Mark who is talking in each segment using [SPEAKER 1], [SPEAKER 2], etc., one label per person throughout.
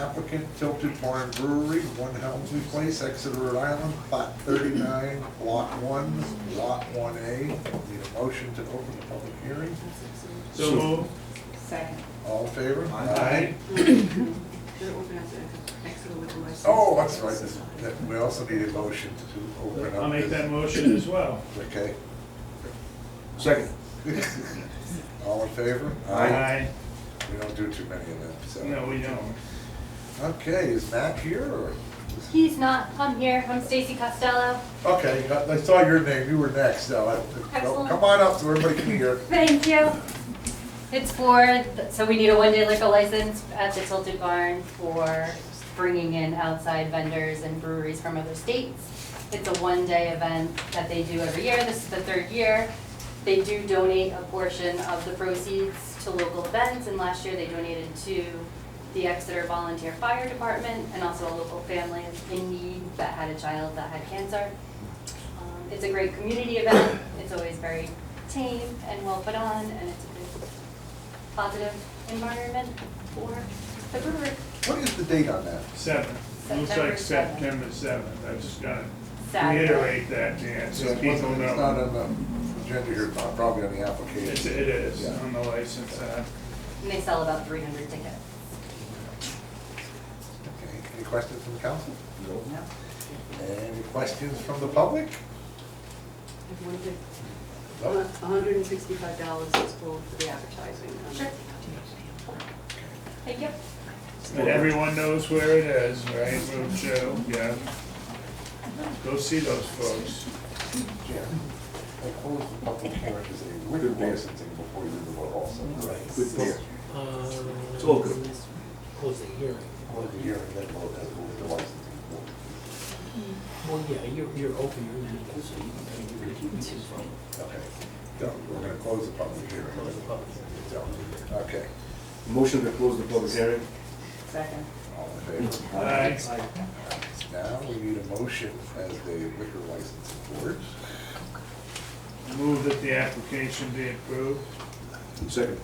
[SPEAKER 1] applicant Tilted Barn Brewery, One Helmsley Place, Exeter, Rhode Island, Lot 39, Block 1, Lot 1A. Need a motion to open the public hearing.
[SPEAKER 2] So moved.
[SPEAKER 3] Second.
[SPEAKER 1] All in favor?
[SPEAKER 2] Aye.
[SPEAKER 3] They're organizing Exeter liquor license.
[SPEAKER 1] Oh, that's right, this- that- we also need a motion to open up.
[SPEAKER 2] I'll make
[SPEAKER 1] this.
[SPEAKER 2] that motion as well.
[SPEAKER 1] Okay.
[SPEAKER 4] Second.
[SPEAKER 1] All in favor?
[SPEAKER 2] Aye.
[SPEAKER 1] We don't do too many of them, so.
[SPEAKER 2] No, we don't.
[SPEAKER 1] Okay, is Matt here or?
[SPEAKER 5] He's not. I'm here. I'm Stacy Costello.
[SPEAKER 1] Okay, I I saw your name, you were next, so I,
[SPEAKER 5] Excellent.
[SPEAKER 1] come on up so everybody can hear.
[SPEAKER 5] Thank you. It's for, so we need a one-day liquor license at the Tilted Barn for bringing in outside vendors and breweries from other states. It's a one-day event that they do every year. This is the third year. They do donate a portion of the proceeds to local events, and last year they donated to the Exeter Volunteer Fire Department and also a local family in need that had a child that had cancer. Um, It's a great community event, it's always very tame and well put on, and it's a good positive environment for the brewery.
[SPEAKER 1] What is the date on that?
[SPEAKER 2] Seven. Looks like
[SPEAKER 5] September
[SPEAKER 2] September
[SPEAKER 5] seventh.
[SPEAKER 2] seventh. I just gotta
[SPEAKER 5] Saturday.
[SPEAKER 2] reiterate that, Dan, so
[SPEAKER 1] It's
[SPEAKER 2] people
[SPEAKER 1] not- It's not
[SPEAKER 2] know.
[SPEAKER 1] on the agenda here, but probably on the
[SPEAKER 2] It's,
[SPEAKER 1] application.
[SPEAKER 2] it is
[SPEAKER 1] Yeah.
[SPEAKER 2] on the license. uh,
[SPEAKER 5] And they sell about three hundred tickets.
[SPEAKER 1] Okay, Any questions from the council? No. Any questions from the public?
[SPEAKER 3] If one thing,
[SPEAKER 1] No?
[SPEAKER 3] hundred and sixty-five dollars is full for the advertising. um,
[SPEAKER 5] Sure. Thank you.
[SPEAKER 2] And everyone knows where it is, right, Little Joe? Yeah. Go see those folks.
[SPEAKER 1] Yeah. I closed the public hearing because they would have licensing before you did the vote also.
[SPEAKER 4] Good book.
[SPEAKER 6] It's
[SPEAKER 4] all good.
[SPEAKER 6] Uh, Close the hearing.
[SPEAKER 1] Close the hearing, then vote, then move the licensing board.
[SPEAKER 6] Well, yeah, you're, you're open, you're in, so you you can choose from.
[SPEAKER 1] Okay. So we're going to close the public hearing.
[SPEAKER 6] Close the public hearing.
[SPEAKER 1] So, Okay,
[SPEAKER 4] Motion to close the public hearing.
[SPEAKER 3] Second.
[SPEAKER 1] all in favor?
[SPEAKER 2] Aye.
[SPEAKER 1] Now, we need a motion as the liquor license board.
[SPEAKER 2] Move that the application be approved.
[SPEAKER 4] Second.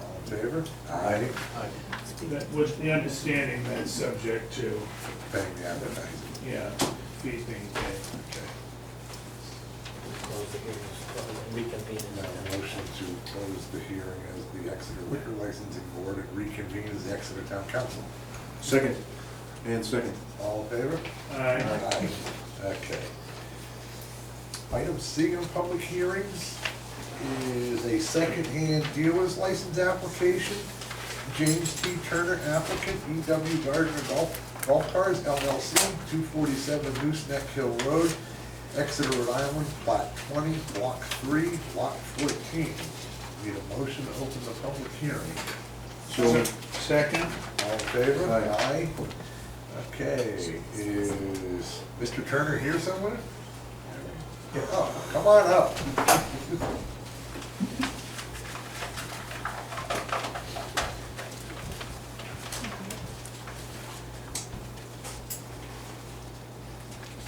[SPEAKER 1] All in favor? Aye.
[SPEAKER 2] That was the understanding that's subject to,
[SPEAKER 1] Paying the advertising.
[SPEAKER 2] yeah, fees being paid.
[SPEAKER 6] Close the hearing, uh, reconvene in
[SPEAKER 1] Now, a
[SPEAKER 6] the
[SPEAKER 1] motion to close the hearing as the Exeter Liquor Licensing Board and reconvene as the Exeter Town Council.
[SPEAKER 4] Second. And second.
[SPEAKER 1] All in favor?
[SPEAKER 2] Aye.
[SPEAKER 1] Okay. Item C on public hearings is a secondhand dealer's license application. James T. Turner applicant, E.W. Gardner Golf, Golf Cars LLC, two forty-seven Gooseneck Hill Road, Exeter, Rhode Island, Lot twenty, Block three, Lot fourteen. Need a motion to open the public hearing.
[SPEAKER 4] So,
[SPEAKER 2] Second?
[SPEAKER 1] All in favor?
[SPEAKER 4] Aye.
[SPEAKER 1] Okay, is Mr. Turner here somewhere? Oh, come on up.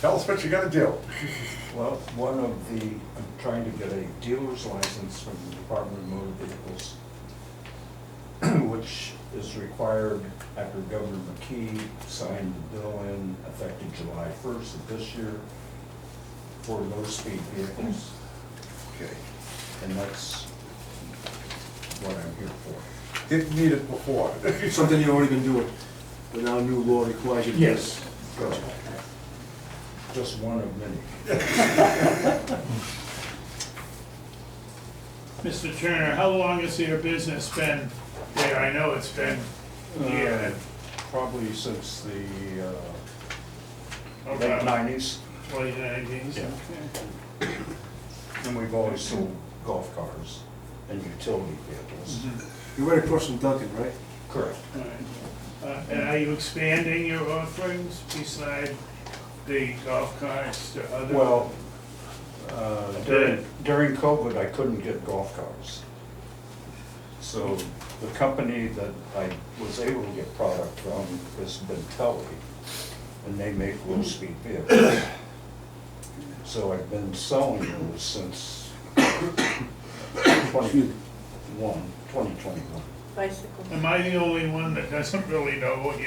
[SPEAKER 1] Tell us what you're gonna do.
[SPEAKER 7] Well, one of the, I'm trying to get a dealer's license from the Department of Motor Vehicles, which is required after Governor McKee signed the bill in effective July first of this year for low-speed vehicles,
[SPEAKER 1] Okay,
[SPEAKER 7] and that's what I'm here for.
[SPEAKER 1] didn't need it before.
[SPEAKER 4] something you already been doing, but now new law requires you to. do it. Gotcha.
[SPEAKER 7] Just one of many.
[SPEAKER 2] Mr. Turner, how long has your business been there? I know it's been
[SPEAKER 7] Uh,
[SPEAKER 2] a year,
[SPEAKER 7] Probably since the uh, late
[SPEAKER 2] Okay.
[SPEAKER 7] nineties.
[SPEAKER 2] twenty nineteen,
[SPEAKER 7] Yeah.
[SPEAKER 2] okay.
[SPEAKER 7] And we've always sold golf cars and utility vehicles.
[SPEAKER 2] Mhm.
[SPEAKER 4] You're right across from Duncan, right?
[SPEAKER 7] Correct.
[SPEAKER 2] All right. Uh, And are you expanding your offerings beside the golf carts to other?
[SPEAKER 7] Well, uh, during, during COVID, I couldn't get golf cars. So the company that I was able to get product from is Bentelli, and they make low-speed vehicles. So I've been selling those since 21, 2021.
[SPEAKER 3] Bicycle.
[SPEAKER 2] Am I the only one that doesn't really know what